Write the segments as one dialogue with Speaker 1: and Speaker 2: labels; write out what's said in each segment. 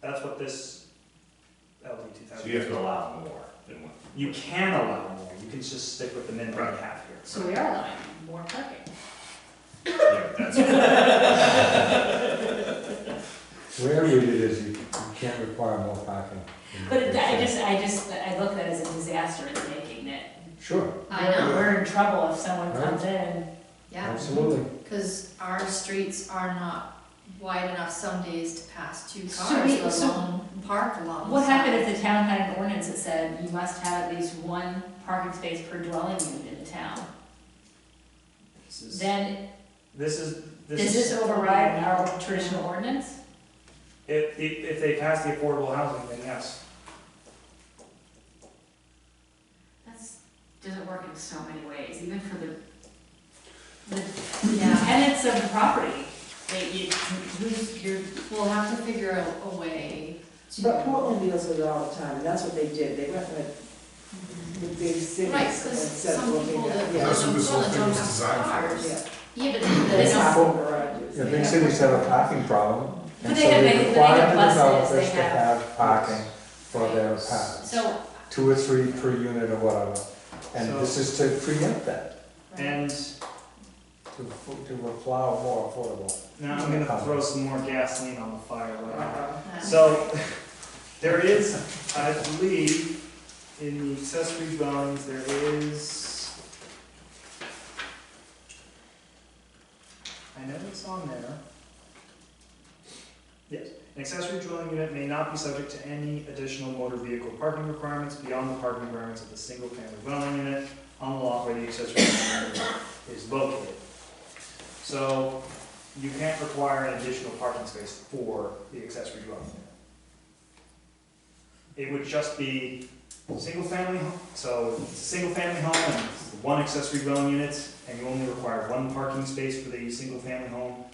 Speaker 1: that's what this LD two
Speaker 2: So you have
Speaker 1: thousand.
Speaker 2: to allow more than what.
Speaker 1: You can allow more, you can just stick with the minimum you
Speaker 2: Right.
Speaker 1: have here.
Speaker 3: So we are allowing more parking.
Speaker 2: Yeah, that's,
Speaker 4: Where we did is you you can't require more parking.
Speaker 3: But it- I just, I just, I look at it as a disaster in the making that
Speaker 4: Sure.
Speaker 5: I know.
Speaker 3: we're in trouble if someone comes in.
Speaker 5: Yeah,
Speaker 4: Absolutely.
Speaker 5: because our streets are not wide enough some days to pass two
Speaker 3: So we-
Speaker 5: cars,
Speaker 3: so-
Speaker 5: let alone park along.
Speaker 3: What happened if the town had an ordinance that said you must have at least one parking space per dwelling unit in the town?
Speaker 1: This is-
Speaker 3: Then,
Speaker 1: This is,
Speaker 3: does
Speaker 1: this
Speaker 3: this
Speaker 1: is,
Speaker 3: override our traditional ordinance?
Speaker 1: if, if if they pass the affordable housing thing, yes.
Speaker 3: That's, doesn't work in so many ways, even for the, the
Speaker 5: Yeah,
Speaker 3: tenants of the property. They, you, who's, your
Speaker 5: we'll have to figure out a way to.
Speaker 6: But Portland deals with it all the time, and that's what they did, they went with the big cities
Speaker 5: Right,
Speaker 6: and
Speaker 5: because
Speaker 6: said,
Speaker 5: some
Speaker 6: well, we
Speaker 5: people
Speaker 6: got,
Speaker 5: that.
Speaker 6: yeah.
Speaker 7: That's what this whole
Speaker 5: that
Speaker 7: thing
Speaker 5: don't
Speaker 7: was
Speaker 5: have
Speaker 7: designed for.
Speaker 5: cars.
Speaker 6: Yeah.
Speaker 3: yeah, but they
Speaker 5: It's
Speaker 3: don't-
Speaker 6: It's full garages.
Speaker 4: Yeah, big cities have a parking problem.
Speaker 3: But
Speaker 4: And
Speaker 3: they
Speaker 4: so
Speaker 3: have- they-
Speaker 4: they
Speaker 3: they
Speaker 4: require
Speaker 3: have
Speaker 4: the
Speaker 3: buses,
Speaker 4: developers
Speaker 3: they
Speaker 4: to
Speaker 3: have-
Speaker 4: have parking for their paths.
Speaker 3: So,
Speaker 4: Two or three per unit or whatever. And
Speaker 1: So-
Speaker 4: this is to preempt that,
Speaker 5: Right.
Speaker 1: And
Speaker 4: to, to allow more affordable.
Speaker 1: now I'm gonna throw some more gasoline on the fire right now.
Speaker 6: Uh-huh.
Speaker 5: Yeah.
Speaker 1: So, there is, I believe, in the accessory dwellings, there is. I know it's on there. Yes, an accessory dwelling unit may not be subject to any additional motor vehicle parking requirements beyond the parking requirements of the single-family dwelling unit on the lot where the accessory dwelling unit is located. So, you can't require an additional parking space for the accessory dwelling unit. It would just be single-family, ho- so it's a single-family home and it's one accessory dwelling unit, and you only require one parking space for the single-family home,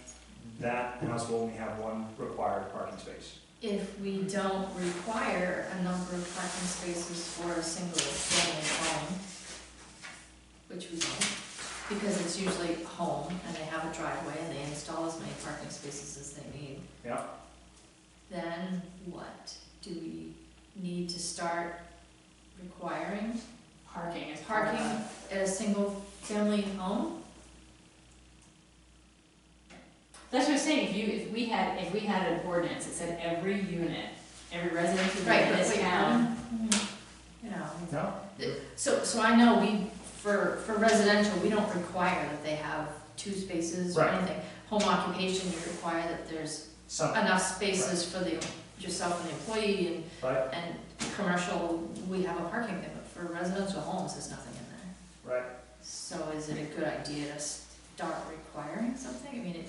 Speaker 1: that house will only have one required parking space.
Speaker 5: If we don't require a number of parking spaces for a single family home, which we don't, because it's usually home and they have a driveway and they install as many parking spaces as they need.
Speaker 1: Yeah.
Speaker 5: Then what? Do we need to start requiring
Speaker 3: parking is
Speaker 5: parking at a single family home?
Speaker 3: That's what I'm saying, if you, if we had, if we had an ordinance that said every unit, every residential unit in
Speaker 5: but
Speaker 3: this
Speaker 5: wait,
Speaker 3: town.
Speaker 5: mm, You know,
Speaker 1: No?
Speaker 5: So, so I know we, for, for residential, we don't require that they have two spaces or
Speaker 1: Right.
Speaker 5: anything. Home occupation, you require that there's
Speaker 1: Some,
Speaker 5: enough spaces for the, yourself and the employee
Speaker 1: right,
Speaker 5: and, and commercial, we have a parking thing, but for residential homes, there's nothing in there.
Speaker 1: right.
Speaker 5: So is it a good idea to start requiring something? I mean, it,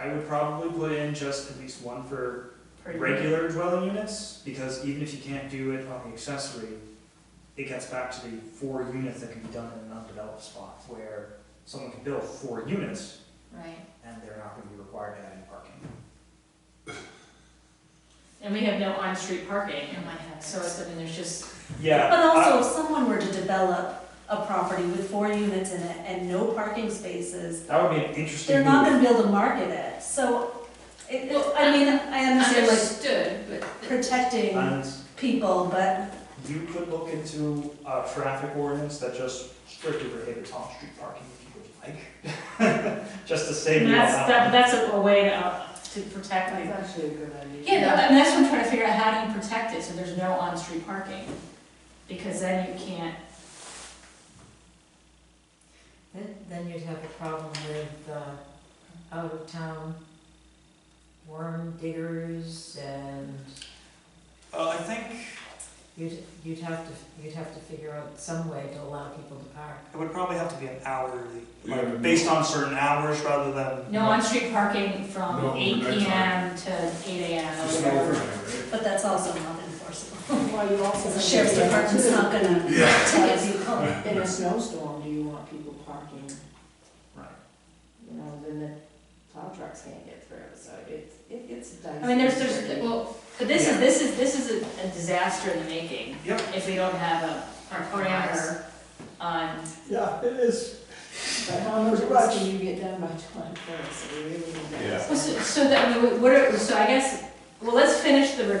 Speaker 1: I would probably put in just at least one for
Speaker 3: per unit.
Speaker 1: regular dwelling units, because even if you can't do it on the accessory, it gets back to the four units that can be done in an undeveloped spot, where someone can build four units,
Speaker 5: right,
Speaker 1: and they're not gonna be required to have any parking.
Speaker 3: And we have no on-street parking,
Speaker 5: in my head.
Speaker 3: so it's, I mean, there's just,
Speaker 1: Yeah.
Speaker 8: But also, if someone were to develop a property with four units in it and no parking spaces,
Speaker 1: That would be an interesting
Speaker 8: they're not
Speaker 1: move.
Speaker 8: gonna be able to market it, so it, it- I mean, I understand like
Speaker 5: Understood, but.
Speaker 8: protecting
Speaker 1: And
Speaker 8: people, but
Speaker 1: you could look into a traffic ordinance that just strictly prohibits on-street parking if you would like, just to save
Speaker 3: and
Speaker 1: you all
Speaker 3: that's,
Speaker 1: that.
Speaker 3: that, that's a a way to, uh, to protect
Speaker 6: That's
Speaker 3: like.
Speaker 6: actually a good idea.
Speaker 3: Yeah, no, and that's what I'm trying to figure out, how do you protect it, so there's no on-street parking? Because then you can't,
Speaker 9: Then, then you'd have a problem with, uh, out of town worm diggers and
Speaker 1: Uh, I think
Speaker 9: you'd, you'd have to, you'd have to figure out some way to allow people to park.
Speaker 1: it would probably have to be an hourly,
Speaker 7: Yeah.
Speaker 1: like, based on certain hours rather than
Speaker 3: no on-street parking from
Speaker 7: No,
Speaker 3: eight
Speaker 7: overnight
Speaker 3: PM to eight AM.
Speaker 7: Just an
Speaker 3: whatever.
Speaker 7: overnight, right?
Speaker 8: but that's also not enforceable.
Speaker 6: Well, you also.
Speaker 8: The sheriff's department's not gonna
Speaker 7: Yeah.
Speaker 8: ticket people.
Speaker 6: In a snowstorm, do you want people parking,
Speaker 1: Right.
Speaker 6: you know, then the plow trucks can't get through, so it's, it, it's dicey.
Speaker 3: I mean, there's, there's, well, but this is, this is, this is a- a disaster in the making.
Speaker 1: Yep.
Speaker 3: If we don't have a, our parameter on,
Speaker 4: Yeah, it is.
Speaker 6: But how much work can you get done by twenty-first, so we really need that.
Speaker 7: Yeah.
Speaker 3: Well, so, so that, I mean, what are, so I guess, well, let's finish the review